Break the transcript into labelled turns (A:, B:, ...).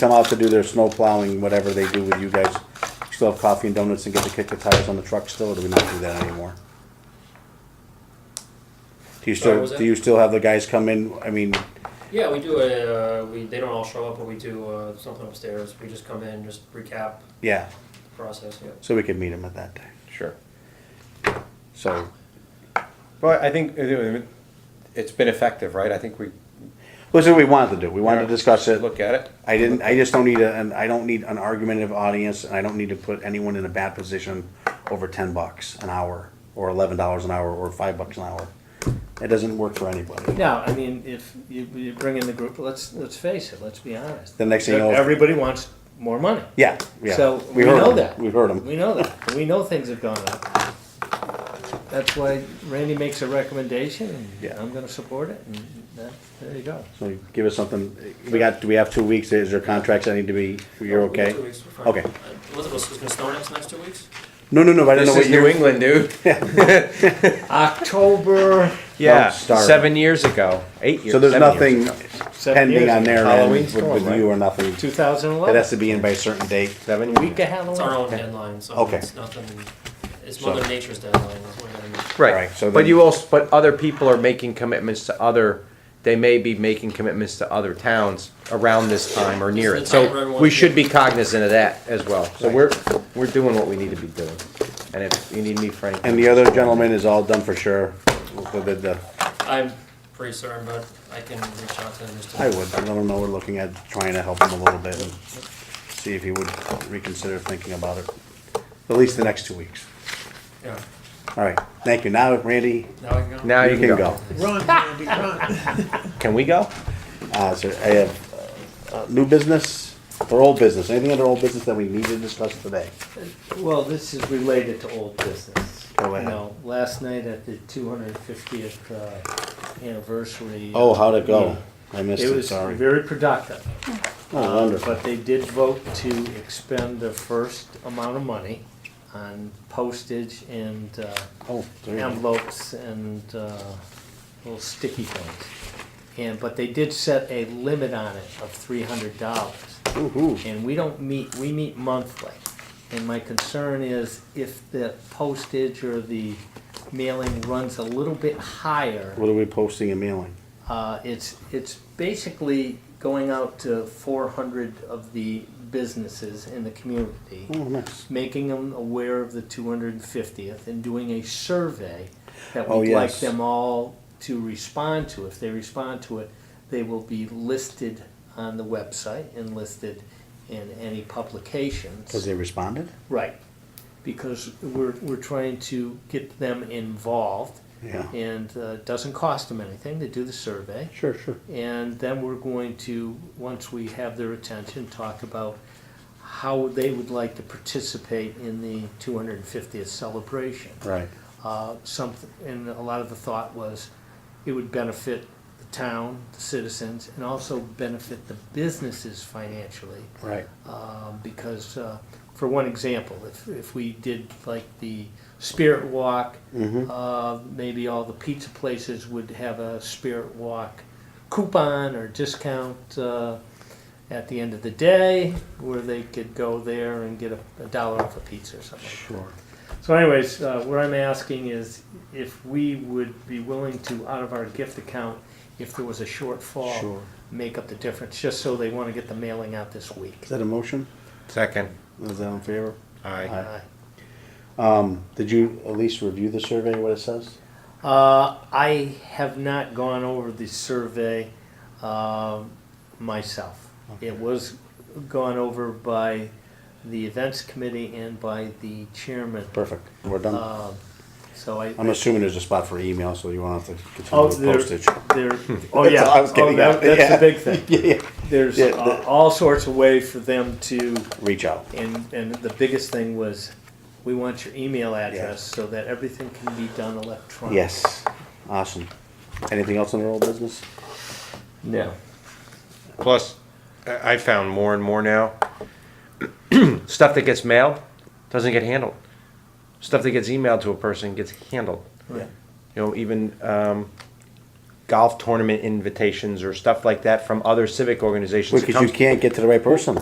A: come out to do their snow plowing, whatever they do with you guys, still have coffee and donuts and get to kick the tires on the truck still, or do we not do that anymore? Do you
B: Sorry,
A: still,
B: was
A: do
B: that-
A: you still have the guys come in, I mean,
B: Yeah, we do a, uh, we, they don't all show up, but we do, uh, something upstairs, we just come in, just recap
A: yeah,
B: the process, yeah.
A: so we could meet them at that time,
C: Sure.
A: so.
C: Well, I think it- it's been effective, right? I think we.
A: This is what we wanted to do, we wanted to discuss it.
C: Look at it.
A: I didn't, I just don't need a, an- I don't need an argumentative audience, and I don't need to put anyone in a bad position over ten bucks an hour, or eleven dollars an hour, or five bucks an hour. It doesn't work for anybody.
D: No, I mean, if you, you bring in the group, let's, let's face it, let's be honest.
A: The next thing you know-
D: Everybody wants more money.
A: Yeah, yeah.
D: So, we
A: heard
D: know
A: 'em.
D: that.
A: We've heard them.
D: We know that. We know things have gone up. That's why Randy makes a recommendation and
A: Yeah.
D: I'm gonna support it and that, there you go.
A: So give us something, we got, do we have two weeks, is there contracts that need to be,
C: Oh,
A: you're
B: We got
A: okay?
B: Two weeks, we're fine.
A: Okay.
B: Uh, Elizabeth was gonna snow next, next two weeks?
A: No, no, no, I don't know
C: This
A: what
C: is New
A: you're.
C: England, dude.
D: October
C: Yeah,
A: Don't start.
C: seven years ago, eight years.
A: So there's
C: seven years
A: nothing
C: ago.
A: pending on their end
C: Halloween's
A: with
C: going,
A: with
C: right?
A: you or nothing,
D: Two
A: it
D: thousand eleven,
A: has to be in by a certain date.
C: Seven
D: week
C: years.
D: of
B: It's our
D: Halloween.
B: own deadline, so
A: Okay.
B: it's nothing, it's
A: So-
B: Mother Nature's deadline, that's what I gotta make.
C: Right.
A: Right, so
C: but
A: then-
C: you also, but other people are making commitments to other. They may be making commitments to other towns around this time or near it.
B: It's the time for
C: So
B: everyone
C: we
B: to
C: should
B: get-
C: be cognizant of that as well. So
A: Right.
C: we're we're doing what we need to be doing. And if you need me for anything,
A: And the other gentleman is all done for sure, the, the, the
B: I'm pretty certain, but I can reach out to him just to.
A: I would, I don't know, we're looking at trying to help him a little bit and see if he would reconsider thinking about it, at least the next two weeks.
B: Yeah,
A: All right, thank you. Now, Randy,
B: now I can go?
C: now
A: you can go.
E: Run, Randy, run.
C: Can we go?
A: Uh, so I have, uh, uh, new business or old business, anything under old business that we need to discuss today?
D: Well, this is related to old business.
A: Go ahead.
D: You know, last night at the two hundred fiftieth, uh, anniversary.
A: Oh, how'd it go? I missed
D: It
A: it,
D: was
A: sorry.
D: very productive.
A: Oh, wonderful.
D: But they did vote to expend the first amount of money on postage and uh,
A: Oh, there you go.
D: envelopes and uh, little sticky things. And, but they did set a limit on it of three hundred dollars.
A: Woo-hoo.
D: And we don't meet, we meet monthly. And my concern is if the postage or the mailing runs a little bit higher,
A: What are we posting and mailing?
D: uh, it's, it's basically going out to four hundred of the businesses in the community,
A: Oh, nice.
D: making them aware of the two hundred and fiftieth and doing a survey that
A: Oh,
D: we'd like
A: yes.
D: them all to respond to. If they respond to it, they will be listed on the website and listed in any publications.
A: Cause they responded?
D: Right, because we're, we're trying to get them involved.
A: Yeah.
D: And uh, it doesn't cost them anything to do the survey.
A: Sure, sure.
D: And then we're going to, once we have their attention, talk about how they would like to participate in the 250th celebration.
A: Right.
D: Uh, some, and a lot of the thought was it would benefit the town, the citizens, and also benefit the businesses financially
A: Right.
D: um, because, uh, for one example, if, if we did like the Spirit Walk, uh, maybe all the pizza places would have a Spirit Walk coupon or discount uh, at the end of the day, where they could go there and get a, a dollar off a pizza or something.
A: Sure.
D: So anyways, uh, what I'm asking is if we would be willing to, out of our gift account, if there was a shortfall,
A: Sure.
D: make up the difference, just so they want to get the mailing out this week.
A: Is that a motion?
C: Second.
A: Is that in favor?
C: Aye.
D: Aye.
A: Um, did you at least review the survey, what it says?
D: Uh, I have not gone over the survey um, myself. It was gone over by the events committee and by the chairman.
A: Perfect, we're done.
D: Um, So I.
A: I'm assuming there's a spot for email, so you won't have to
D: Oh,
A: continue with
D: there,
A: postage.
D: there, oh,
A: That's
D: yeah.
A: all I was
D: Oh,
A: getting
D: that-
A: at.
D: That's
A: Yeah.
D: the big thing.
A: Yeah, yeah.
D: There's
A: Yeah,
D: uh,
A: the-
D: all sorts of way for them to,
A: Reach out.
D: and, and the biggest thing was, we want your email address so that everything can be done electronically.
A: Yes, awesome. Anything else in our old business?
D: No.
C: Plus, I I found more and more now stuff that gets mailed doesn't get handled. Stuff that gets emailed to a person gets handled.
D: Right.
C: You know, even um, golf tournament invitations or stuff like that from other civic organizations. It
A: Because you
C: comes-
A: can't get to the right person.